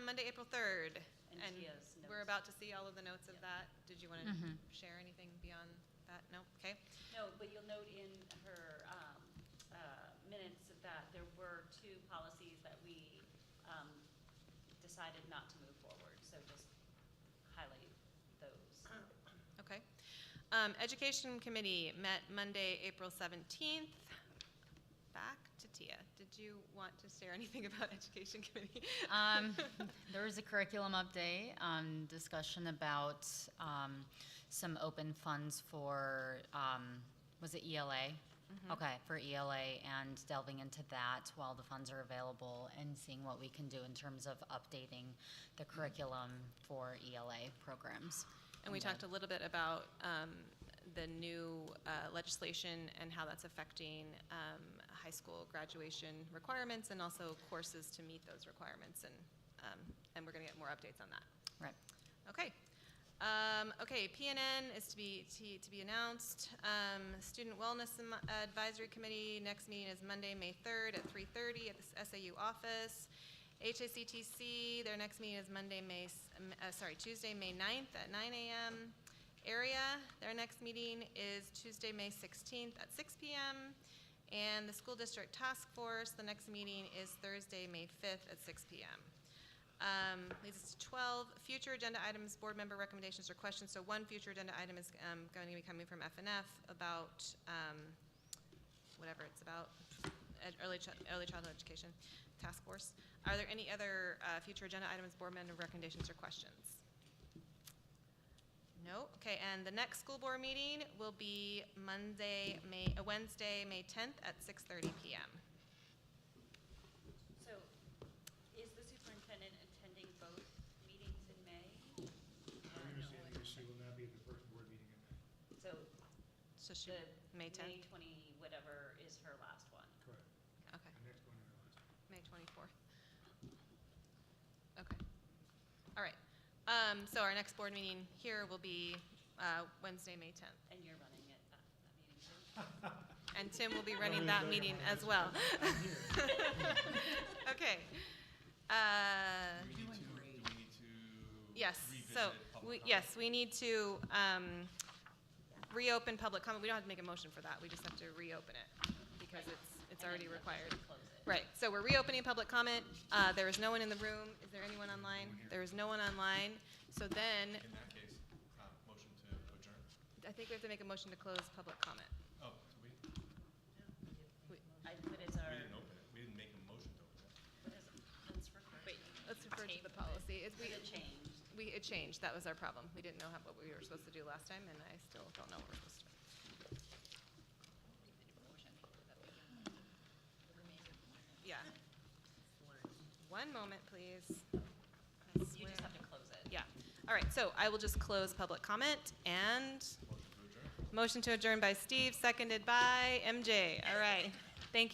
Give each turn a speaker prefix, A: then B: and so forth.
A: 23rd.
B: And she has
A: we're
B: notes.
A: about to see all of the notes of
B: Yep.
A: that. Did you want to
C: Mhm.
A: share anything beyond that? No? Okay.
B: No, but you'll note in her um, uh, minutes that there were two policies that we um, decided not to move forward, so just highlight those.
A: Okay. Um, Education Committee met Monday, April 17th. Back to Tia. Did you want to share anything about Education Committee?
C: um, there was a curriculum update, um, discussion about um, some open funds for, um, was it ELA? Okay, for ELA and delving into that while the funds are available and seeing what we can do in terms of updating the curriculum for ELA programs.
A: And we
C: then-
A: talked a little bit about um, the new uh, legislation and how that's affecting um, high school graduation requirements and also courses to meet those requirements, and, um, and we're going to get more updates on that.
C: Right.
A: Okay. Um, okay, PNN is to be, to, to be announced. Um, Student Wellness Am- Advisory Committee, next meeting is Monday, May 3rd at 3:30 at the SAU office. HACTC, their next meeting is Monday, May, s- um, uh, sorry, Tuesday, May 9th at 9 a.m. Area, their next meeting is Tuesday, May 16th at 6 p.m. And the School District Task Force, the next meeting is Thursday, May 5th at 6 p.m. Um, Leads us to 12, future agenda items, board member recommendations or questions. So one future agenda item is um, going to be coming from F and F about um, whatever it's about, ed- early chi- early childhood education task force. Are there any other uh, future agenda items, board member recommendations or questions? No? Okay, and the next school board meeting will be Monday, May, uh, Wednesday, May 10th at 6:30 PM.
B: So is the superintendent attending both meetings in May?
D: My understanding is she will not be at the first board meeting in May.
B: So
A: So she,
B: the
A: May
B: May
A: 10th?
B: 20, whatever, is her last one.
D: Correct.
A: Okay.
D: The next one in August.
A: May 24th. Okay. All right. Um, So our next board meeting here will be uh, Wednesday, May 10th.
B: And you're running it, that that meeting too?
A: And Tim will be
D: Nobody's
A: running that meeting
D: looking
A: as
D: at us.
A: well.
D: I'm here.
A: Okay. Uh,
E: Do we need to, do we need to
A: Yes,
E: revisit
A: so, we-
E: public comment?
A: yes, we need to um, reopen public comment. We don't have to make a motion for that. We just have to reopen it because it's, it's
B: And
A: already
B: then you have
A: required.
B: to close it.
A: Right, so we're reopening public comment. Uh, There is no one in the room. Is there anyone online? There is no one online. So then,
E: In that case, uh, motion to adjourn.
A: I think we have to make a motion to close public comment.
E: Oh, so we,
A: We-
B: I put as our.
E: we didn't open it. We didn't make a motion to open it.
B: What is it? Let's refer to-
A: Wait, let's refer to the
B: Table it.
A: policy. It's- we-
B: The change.
A: We, it changed, that was our problem. We didn't know how- what we were supposed to do last time, and I still don't know what we're supposed to do. Yeah. One moment, please. I
B: You
A: swear.
B: just have to close it.
A: Yeah. All right, so I will just close public comment and
E: Motion to adjourn.
A: motion to adjourn by Steve, seconded by MJ. All right.